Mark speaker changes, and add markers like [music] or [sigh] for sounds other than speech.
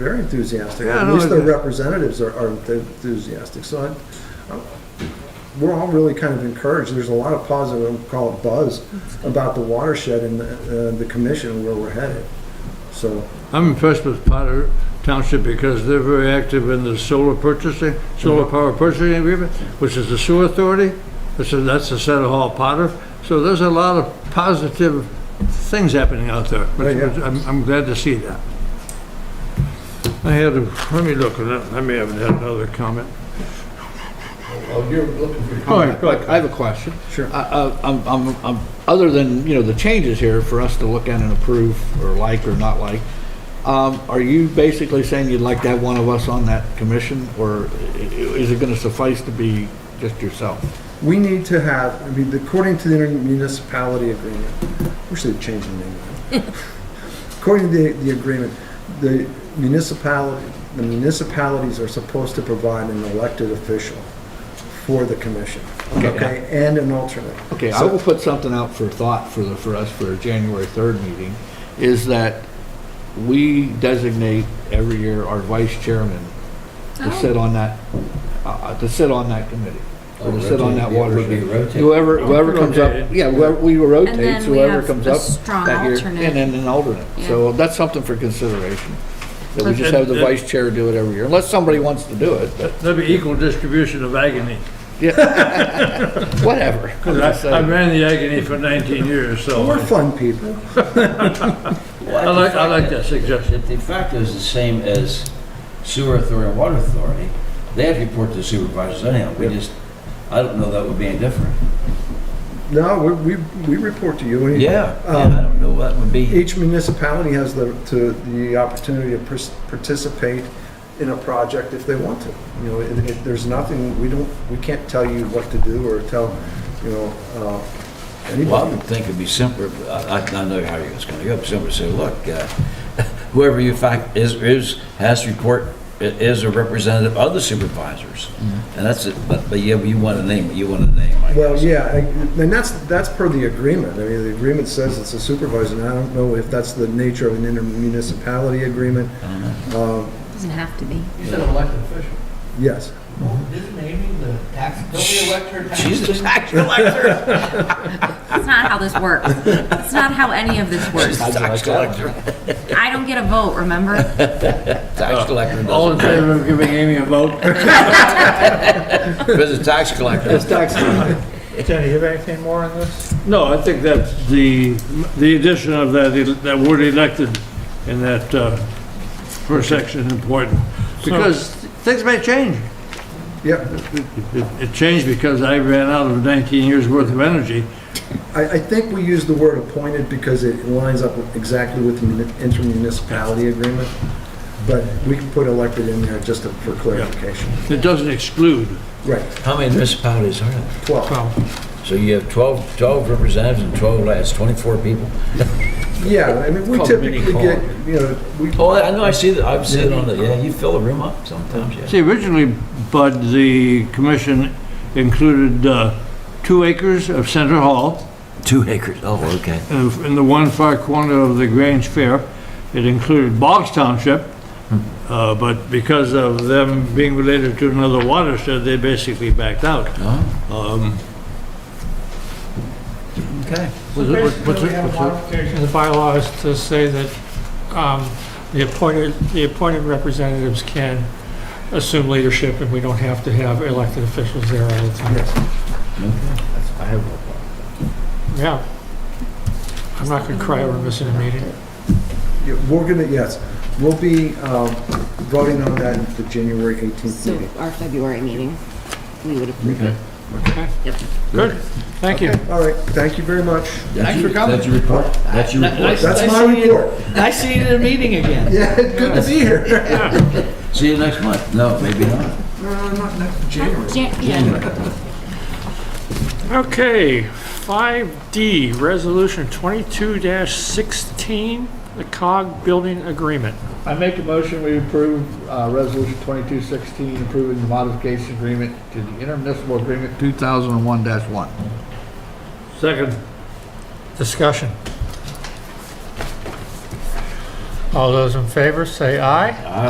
Speaker 1: very enthusiastic.
Speaker 2: Yeah,
Speaker 1: At
Speaker 2: no,
Speaker 1: least their
Speaker 2: it-
Speaker 1: representatives are, are enthusiastic. So I'm, I'm- we're all really kind of encouraged. There's a lot of positive, we'll call it buzz, about the watershed and the, uh, the commission where we're headed. So,
Speaker 2: I'm impressed with Potter Township because they're very active in the solar purchasing, solar power purchasing agreement, which is the sewer authority, which is, that's the Center Hall Potter. So there's a lot of positive things happening out there. which-
Speaker 1: Yeah, yeah.
Speaker 2: which I'm, I'm glad to see that. I had, a- let me look, at that. I may have had another comment.
Speaker 3: Oh, you're looking for.
Speaker 4: All right, look, I have a question.
Speaker 1: Sure.
Speaker 4: I- I- I'm, I'm, I'm, other than, you know, the changes here for us to look at and approve or like or not like, um, are you basically saying you'd like to have one of us on that commission? Or i- i- is it gonna suffice to be just yourself?
Speaker 1: we need to have, I mean, according to the intermunicipality agreement, wish they'd change the name.
Speaker 4: [laughs]
Speaker 1: According to the, the agreement, the municipality, the municipalities are supposed to provide an elected official for the commission,
Speaker 4: Okay.
Speaker 1: okay, and an alternate.
Speaker 4: Okay, I
Speaker 1: So-
Speaker 4: will put something out for thought for the, for us for a January 3rd meeting, is that we designate every year our vice chairman to
Speaker 5: Oh.
Speaker 4: sit on that, uh, to sit on that committee, or to sit on that water.
Speaker 3: Would be rotated.
Speaker 4: Whoever, whoever comes up,
Speaker 2: Rotated.
Speaker 4: yeah, whoever- we rotate,
Speaker 5: then we
Speaker 4: whoever
Speaker 5: have
Speaker 4: comes
Speaker 5: a
Speaker 4: up
Speaker 5: strong
Speaker 4: that year,
Speaker 5: alternate.
Speaker 4: and then an alternate. So that's something for consideration, that we just
Speaker 2: Okay.
Speaker 4: have the vice chair do it every year, unless somebody wants to do it, but
Speaker 2: There'll be equal distribution of agony.
Speaker 4: whatever. I'm just [laughs]
Speaker 2: Because I, I
Speaker 4: saying.
Speaker 2: ran the agony for 19 years, so
Speaker 1: We're fun people.
Speaker 2: I like, I like that suggestion.
Speaker 3: The fact is the same as sewer authority and water authority. They have to report to supervisors anyhow. We just, I don't know that would be any different.
Speaker 1: No, we, we, we report to you. and
Speaker 3: Yeah, um,
Speaker 1: Um,
Speaker 3: and I don't know what would be.
Speaker 1: Each municipality has the, to, the opportunity to pers- participate in a project if they want to. You know, it, it, there's nothing, we don't, we can't tell you what to do or tell, you know, uh,
Speaker 3: Well, I
Speaker 1: anybody.
Speaker 3: would think it'd be simpler, but I, I I know how it's gonna go, but somebody say, look, uh, [laughs] whoever you fact is, is, has to report, i- is a representative of the supervisors. And that's it, but, but yeah, you want a name, you want a name, I
Speaker 1: Well,
Speaker 3: guess.
Speaker 1: yeah, I- and that's, that's per the agreement. I mean, the agreement says it's a supervisor, and I don't know if that's the nature of an intermunicipality agreement.
Speaker 5: Doesn't have to be.
Speaker 6: You said elected official.
Speaker 1: Yes.
Speaker 6: Isn't Amy the tax, don't we elect her tax?
Speaker 3: She's the
Speaker 6: person?
Speaker 3: [laughs] tax collector.
Speaker 5: That's not how this works. That's not how any of this works.
Speaker 3: Tax collector.
Speaker 5: I don't get a vote, remember?
Speaker 2: Oh,
Speaker 3: Tax collector
Speaker 2: All in
Speaker 3: doesn't,
Speaker 2: favor of giving Amy a vote?
Speaker 3: because the tax collector.
Speaker 4: It's tax time.
Speaker 7: Jenny, you have anything more on this?
Speaker 2: No, I think that's the, the addition of that, that word elected in that uh, first section is important. Because things may change.
Speaker 1: Yep.
Speaker 2: It it changed because I ran out of 19 years' worth of energy.
Speaker 1: I, I think we use the word appointed because it lines up exactly with the muni- intermunicipality agreement, but we can put elected in there just to- for clarification.
Speaker 2: It doesn't exclude.
Speaker 1: Right,
Speaker 3: How many municipalities are there?
Speaker 1: 12.
Speaker 3: So you have 12, 12 representatives and 12 last, 24 people.
Speaker 1: Yeah, I mean, we
Speaker 3: Call mini
Speaker 1: typically
Speaker 3: call.
Speaker 1: get, you know, we,
Speaker 3: Oh, I know, I see that, I've seen it on the, yeah, you fill the room up sometimes, yeah.
Speaker 2: See, originally, Bud, the commission included uh, two acres of Center Hall
Speaker 3: Two acres, oh, okay.
Speaker 2: in in the one far corner of the Grange Fair. It included Boggs Township, uh, but because of them being related to another watershed, they basically backed out.
Speaker 3: Oh,
Speaker 2: Um,
Speaker 3: okay.
Speaker 2: was
Speaker 7: So
Speaker 2: it- was-
Speaker 7: basically,
Speaker 2: was
Speaker 7: we
Speaker 2: it-
Speaker 7: have a
Speaker 2: was it-
Speaker 7: modification of the bylaws to say that um, the appointed, the appointed representatives can assume leadership, and we don't have to have elected officials there all the time.
Speaker 4: I have no
Speaker 7: Yeah. I'm not going to cry over missing a meeting.
Speaker 1: yeah, we're gonna, yes, we'll be um, voting on that at the January 18th
Speaker 8: So
Speaker 1: meeting.
Speaker 8: our February meeting, we would approve.
Speaker 7: Good, thank you.
Speaker 1: All right, thank you very much. [laughs]
Speaker 4: Thanks for coming.
Speaker 3: That's your report? That's your report?
Speaker 1: That's my report.
Speaker 4: I see you in a meeting again.
Speaker 1: Yeah, good to be here. [laughs]
Speaker 3: See you next month. No, maybe not.
Speaker 1: No, Uh, not next, January.
Speaker 5: Jan- yeah.
Speaker 7: Okay, 5D, Resolution 22-16, the COG Building Agreement.
Speaker 4: [laughs] I make a motion, we approve uh, Resolution 2216, approving the modification agreement to the intermunicipal agreement 2001-1.
Speaker 2: Second.
Speaker 7: Discussion. All those in favor, say aye.